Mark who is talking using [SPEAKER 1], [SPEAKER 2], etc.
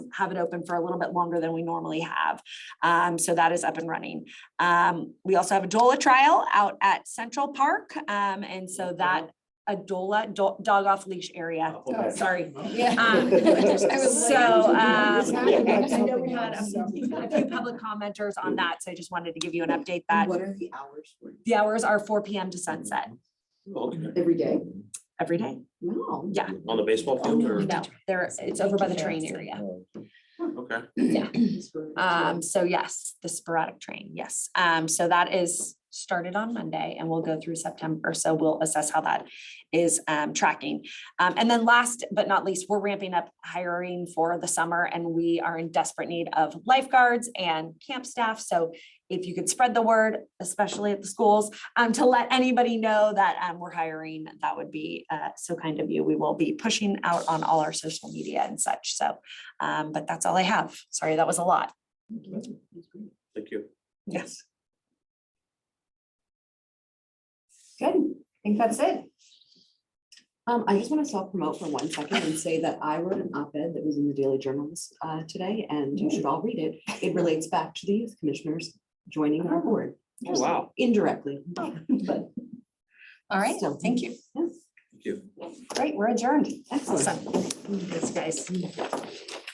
[SPEAKER 1] have it open for a little bit longer than we normally have. Um, so that is up and running. Um, we also have a DOLA trial out at Central Park. Um, and so that, a DOLA, do- dog off leash area.
[SPEAKER 2] Oh.
[SPEAKER 1] Sorry. Um, So,
[SPEAKER 2] I was
[SPEAKER 1] um,
[SPEAKER 2] like-
[SPEAKER 1] I know we had a few a few public commenters on that, so I just wanted to give you an update that
[SPEAKER 3] What are the hours for
[SPEAKER 1] the hours are four PM to sunset
[SPEAKER 2] Okay.
[SPEAKER 3] every day?
[SPEAKER 1] every day.
[SPEAKER 3] No.
[SPEAKER 1] Yeah,
[SPEAKER 2] On the baseball field or?
[SPEAKER 1] no, there, it's over by the train area.
[SPEAKER 2] Okay.
[SPEAKER 1] Yeah.
[SPEAKER 3] It's for-
[SPEAKER 1] Um, so yes, the sporadic train, yes. Um, so that is started on Monday and we'll go through September. So we'll assess how that is um tracking. Um, and then last but not least, we're ramping up hiring for the summer and we are in desperate need of lifeguards and camp staff. So if you could spread the word, especially at the schools, um, to let anybody know that um we're hiring, that would be uh so kind of you. We will be pushing out on all our social media and such. So um, but that's all I have. Sorry, that was a lot.
[SPEAKER 3] That's great.
[SPEAKER 2] Thank you.
[SPEAKER 1] Yes.
[SPEAKER 3] Good, I think that's it. Um, I just want to self-promote for one second and say that I wrote an op-ed that was in the Daily Journal this, uh, today, and you should all read it. It relates back to the youth commissioners joining our board.
[SPEAKER 2] Oh, wow.
[SPEAKER 3] Indirectly, but.
[SPEAKER 1] All right,
[SPEAKER 3] still.
[SPEAKER 1] thank you.
[SPEAKER 3] Yes,
[SPEAKER 2] Thank you.
[SPEAKER 1] Great, we're adjourned.
[SPEAKER 3] Excellent.
[SPEAKER 1] Awesome. Thanks, guys.